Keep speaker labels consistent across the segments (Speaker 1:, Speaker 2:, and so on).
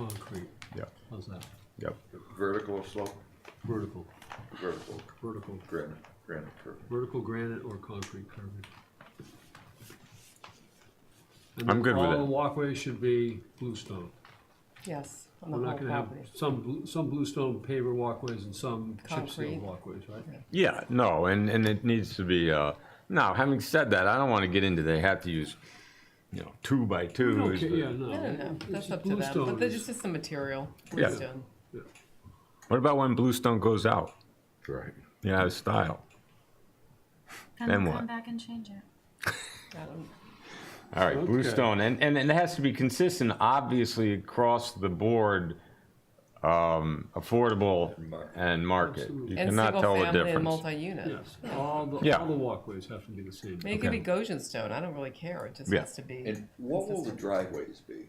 Speaker 1: concrete,
Speaker 2: Yep,
Speaker 1: how's that?
Speaker 2: yep.
Speaker 3: Vertical or slope?
Speaker 1: Vertical,
Speaker 3: Vertical,
Speaker 1: vertical,
Speaker 3: granite, granite curving.
Speaker 1: vertical granite or concrete curving. And
Speaker 2: I'm
Speaker 1: then
Speaker 2: good with
Speaker 1: All
Speaker 2: it.
Speaker 1: walkways should be bluestone.
Speaker 4: Yes, on the
Speaker 1: We're
Speaker 4: whole
Speaker 1: not gonna have
Speaker 4: property.
Speaker 1: some, blue- some bluestone paver walkways and some chip seal
Speaker 4: Concrete.
Speaker 1: walkways, right?
Speaker 2: Yeah, no, and, and it needs to be, uh, now, having said that, I don't wanna get into they have to use, you know, two by two. is
Speaker 1: Okay,
Speaker 2: the-
Speaker 1: yeah, no.
Speaker 4: I don't know,
Speaker 1: it's
Speaker 4: that's
Speaker 1: just
Speaker 4: up to them,
Speaker 1: bluestone
Speaker 4: but they're
Speaker 1: is-
Speaker 4: just, just the material,
Speaker 2: Yeah.
Speaker 4: bluestone.
Speaker 2: What about when bluestone goes out?
Speaker 3: Right.
Speaker 2: You know, style.
Speaker 5: And
Speaker 2: Then
Speaker 5: we'll
Speaker 2: what?
Speaker 5: Come back and change it.
Speaker 4: I don't-
Speaker 2: All right,
Speaker 1: Okay.
Speaker 2: bluestone, and, and, and it has to be consistent, obviously, across the board, um, affordable
Speaker 3: Market.
Speaker 2: and market. You
Speaker 4: And
Speaker 2: cannot
Speaker 4: single
Speaker 2: tell the
Speaker 4: family and
Speaker 2: difference.
Speaker 4: multi-unit.
Speaker 1: Yes, all the,
Speaker 2: Yeah.
Speaker 1: all the walkways have to be the same.
Speaker 4: I mean, it could
Speaker 2: Okay.
Speaker 4: be Goshen stone, I don't really care, it just
Speaker 2: Yeah.
Speaker 4: has to be,
Speaker 3: And what will the driveways be?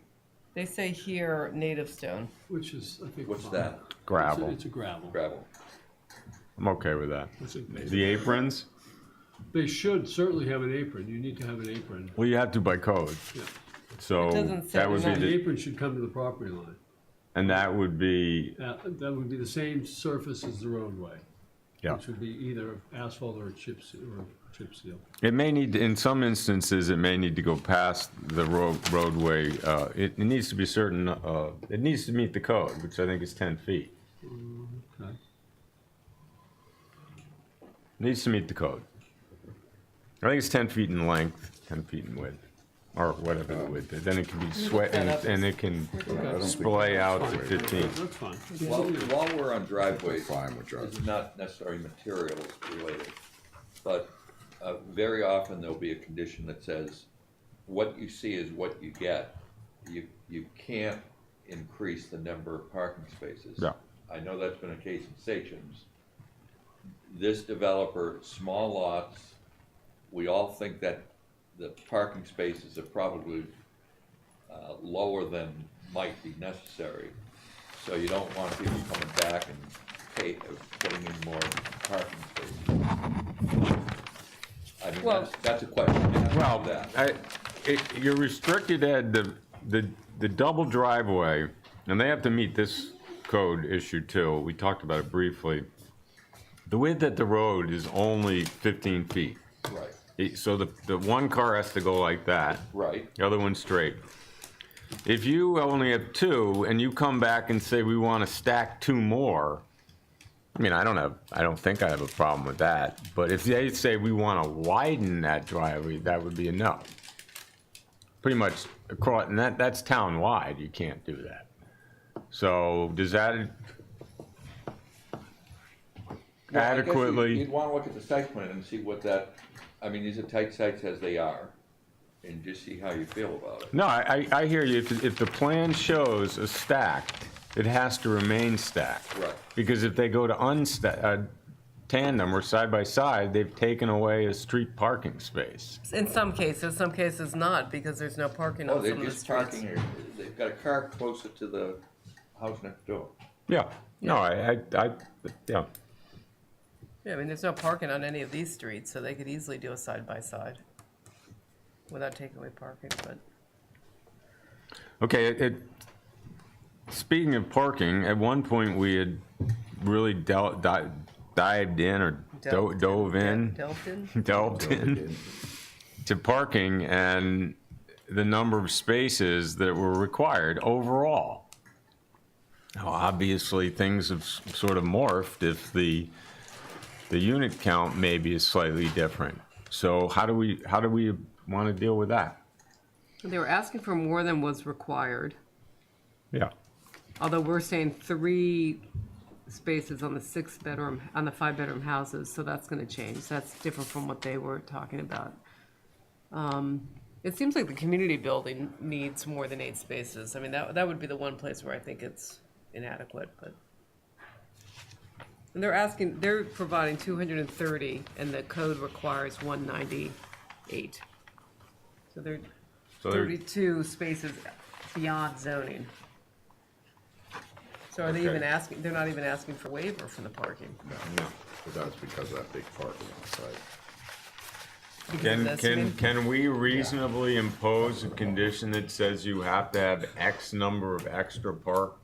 Speaker 4: they say here native stone.
Speaker 1: Which is, I think.
Speaker 3: What's
Speaker 1: fine.
Speaker 3: that?
Speaker 2: Gravel.
Speaker 1: It's a- It's a gravel.
Speaker 3: Gravel.
Speaker 2: I'm okay with that.
Speaker 1: It's a-
Speaker 2: The aprons,
Speaker 1: They should certainly have an apron, you need to have an apron.
Speaker 2: well, you have to by code,
Speaker 1: Yeah.
Speaker 2: so
Speaker 4: doesn't say
Speaker 2: that would be,
Speaker 4: that.
Speaker 1: The
Speaker 2: the-
Speaker 1: apron should come to the property line.
Speaker 2: and that would be,
Speaker 1: That, that would be the same surface as the roadway,
Speaker 2: yeah.
Speaker 1: which would be either asphalt or chip, se- or chip seal.
Speaker 2: It may need, in some instances, it may need to go past the ro- roadway. uh, It it needs to be certain, uh, it needs to meet the code, which I think is 10 feet.
Speaker 1: Okay.
Speaker 2: Needs to meet the code. I think it's 10 feet in length, 10 feet in width, or whatever the width is. Then it can be sweat, and it- and it can splay out to 15.
Speaker 1: That's fine.
Speaker 3: While, while we're on driveways, this is not necessarily materials related, but uh, very often there'll be a condition that says, what you see is what you get. You, you can't increase the number of parking spaces.
Speaker 2: Yeah.
Speaker 3: I know that's been a case in Sachem's. This developer, small lots, we all think that the parking spaces are probably uh, lower than might be necessary. So you don't want people coming back and pay, uh, putting in more parking spaces. I mean,
Speaker 4: Well-
Speaker 3: that's, that's a question. I have
Speaker 2: Well,
Speaker 3: to that.
Speaker 2: I, it, you're restricted at the, the, the double driveway, and they have to meet this code issue too. We talked about it briefly. The width at the road is only fifteen feet.
Speaker 3: Right,
Speaker 2: It- So the, the one car has to go like that,
Speaker 3: right,
Speaker 2: the other one's straight. If you only have two and you come back and say, we want to stack two more, I mean, I don't have, I don't think I have a problem with that. But if they say we want to widen that driveway, that would be a no. Pretty much across, and that, that's town-wide, you can't do that. So does that
Speaker 3: Well, I guess you- You'd
Speaker 2: adequately,
Speaker 3: wanna look at the site plan and see what that, I mean, these are tight sites as they are, and just see how you feel about it.
Speaker 2: no, I, I I hear you. If, if the plan shows a stack, it has to remain stacked.
Speaker 3: Right.
Speaker 2: Because if they go to unsta, uh, tandem or side by side, they've taken away a street parking space.
Speaker 4: In some cases, some cases not, because there's no parking
Speaker 3: Oh,
Speaker 4: on
Speaker 3: they're
Speaker 4: some of the
Speaker 3: just
Speaker 4: streets.
Speaker 3: parking, here. they've got a car closer to the house next door.
Speaker 2: Yeah, no, I, I, I, yeah.
Speaker 4: Yeah, I mean, there's no parking on any of these streets, so they could easily do a side-by-side without taking away parking, but
Speaker 2: Okay, it, it, speaking of parking, at one point we had really del- di- dived in or do-
Speaker 4: Delved in,
Speaker 2: dove in,
Speaker 4: Delphin?
Speaker 2: delved in to parking and the number of spaces that were required overall. Now, obviously, things have s- sort of morphed if the, the unit count maybe is slightly different. So how do we, how do we want to deal with that?
Speaker 4: They were asking for more than was required,
Speaker 2: Yeah.
Speaker 4: although we're saying three spaces on the six-bedroom, on the five-bedroom houses, so that's gonna change. That's different from what they were talking about. Um, It seems like the community building needs more than eight spaces. I mean, that, that would be the one place where I think it's inadequate, but. And they're asking, they're providing two hundred and thirty, and the code requires one ninety-eight. So they're
Speaker 2: So there-
Speaker 4: thirty-two spaces beyond zoning. So are they even
Speaker 6: Okay.
Speaker 4: asking, they're not even asking for waiver from the parking?
Speaker 6: No, but that's because of that big parking outside. because of
Speaker 2: Can,
Speaker 6: this. I
Speaker 2: can,
Speaker 6: mean,
Speaker 2: can we reasonably impose a condition that says you have to have X number of extra park